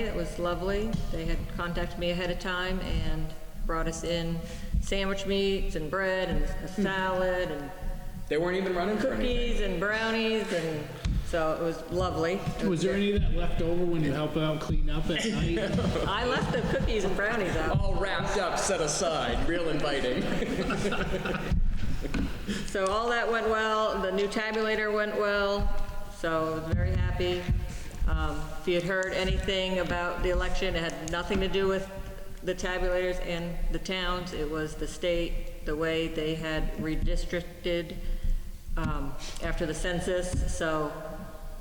It was lovely. They had contacted me ahead of time and brought us in sandwich meats and bread and a salad and They weren't even running for anything. cookies and brownies and so it was lovely. Was there any of that left over when you help out clean up at night? I left the cookies and brownies out. All wrapped up, set aside, real inviting. So all that went well, the new tabulator went well, so I was very happy. Um, If you had heard anything about the election, it had nothing to do with the tabulators and the towns, it was the state, the way they had redistricted um, after the census, so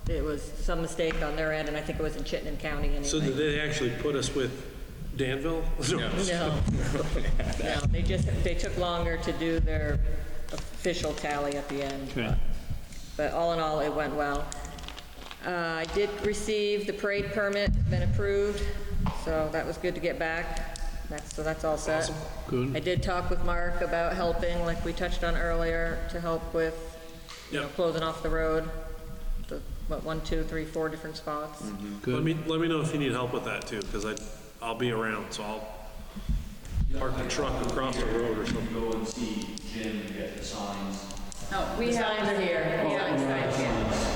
it was some mistake on their end, and I think it was in Chittenden County anyway. So did they actually put us with Danville? No, no, they just, they took longer to do their official tally at the end. Okay. But all in all, it went well. Uh, I did receive the parade permit, been approved, so that was good to get back. That's, so that's all set. Good. I did talk with Mark about helping, like we touched on earlier, to help with, you know, Yeah. closing off the road, the, what, one, two, three, four different spots. Let me, let me know if you need help with that too, because I, I'll be around, so I'll park the truck across the road or something. Go and see Jim get the signs, Oh, we have. Signs here, signs here.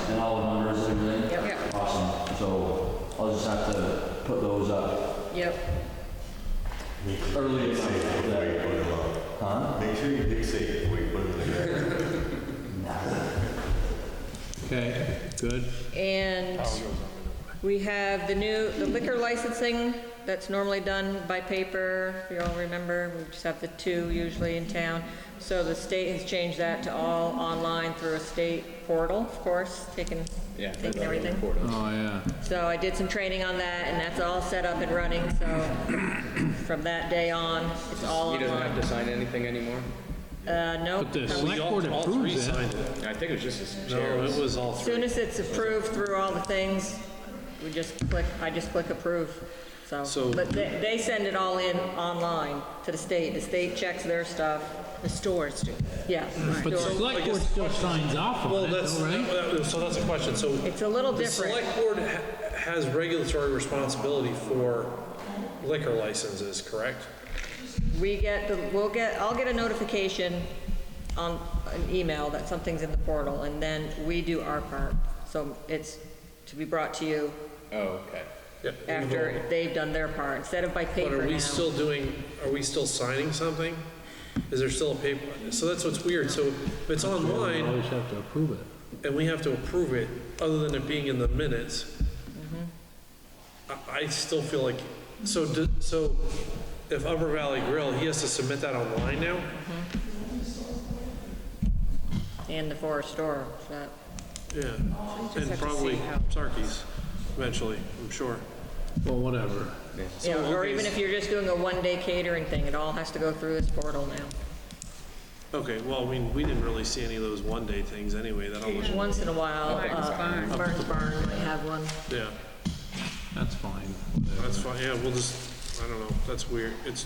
and all the numbers and everything. Yep. Yep. Awesome, so I'll just have to put those up Yep. early as possible. Make sure you dig safe before you put it in the ground. Okay, good. And we have the new, the liquor licensing that's normally done by paper, if you all remember, we just have the two usually in town. So the state has changed that to all online through a state portal, of course, taking, taking everything. Oh, yeah. So I did some training on that, and that's all set up and running, so from that day on, it's all He doesn't have online. to sign anything anymore? Uh, nope. But the As select board All three approves it. signed it. I think it was just his No, chair. it was all soon three. as it's approved through all the things, we just click, I just click approve, so. So- But they, they send it all in online to the state, the state checks their stuff. The stores do. Yeah. But the stores. select board guess- still signs off Well, on it, that's, though, right? that- so that's a question, so. It's a little The different. select board ha- has regulatory responsibility for liquor licenses, correct? We get, the we'll get, I'll get a notification on an email that something's in the portal, and then we do our part. So it's to be brought to you Oh, okay. Yep. after they've done their part, instead of by paper But now. are we still doing, are we still signing something? Is there still a paper? So that's what's weird, so if it's You online always have to approve it. and we have to approve it, other than it being in the minutes, I, I still feel like, so, do- so if Upper Valley Grill, he has to submit that online now? And the forest store, that. Yeah, and probably Sarkis eventually, I'm sure. Well, whatever. Yeah, or okay, even so- if you're just doing a one-day catering thing, it all has to go through this portal now. Okay, well, I mean, we didn't really see any of those one-day things anyway, that almost, Once in a while, uh, Barnes Barn might have one. yeah. That's fine. That's fine, yeah, we'll just, I don't know, that's weird. It's,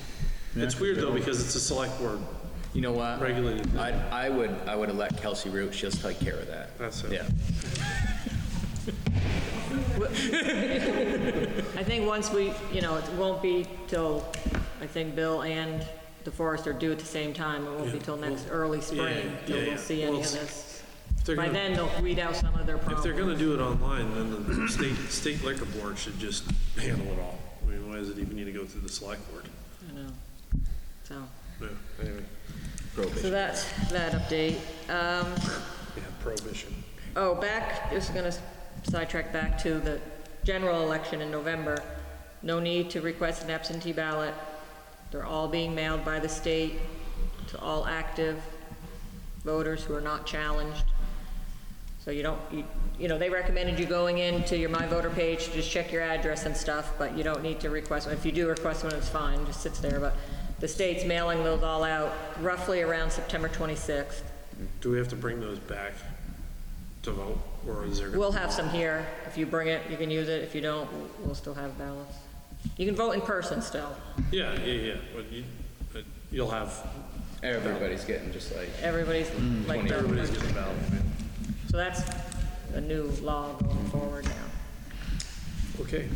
it's weird though, because it's a select board. You know what? Regulated. I, I would, I would have let Kelsey Root, she'll take care of that. That's it. Yeah. I think once we, you know, it won't be till, I think Bill and the forest are due at the same time. It won't be till next early spring, till yeah, yeah. we'll see any Well, of it's- this. If they're By gonna- then, they'll weed out some of their If problems. they're gonna do it online, then the state, state liquor board should just handle it all. I mean, why does it even need to go through the select board? I know. So, Yeah, anyway, so that's that update. Um, yeah, prohibition. Oh, back, just gonna sidetrack back to the general election in November. No need to request an absentee ballot. They're all being mailed by the state to all active voters who are not challenged. So you don't, you, you know, they recommended you going into your My Voter page, to just check your address and stuff, but you don't need to request one. If you do request one, it's fine, it just sits there, but the state's mailing those all out roughly around September 26th. Do we have to bring those back to vote, or is there? gonna- We'll have some here. If you bring it, you can use it. If you don't, we'll still have ballots. You can vote in person still. Yeah, yeah, yeah, but you, but you'll have, Everybody's getting just like, Everybody's like, everybody's getting a ballot. man. so that's a new law going forward now. Okay,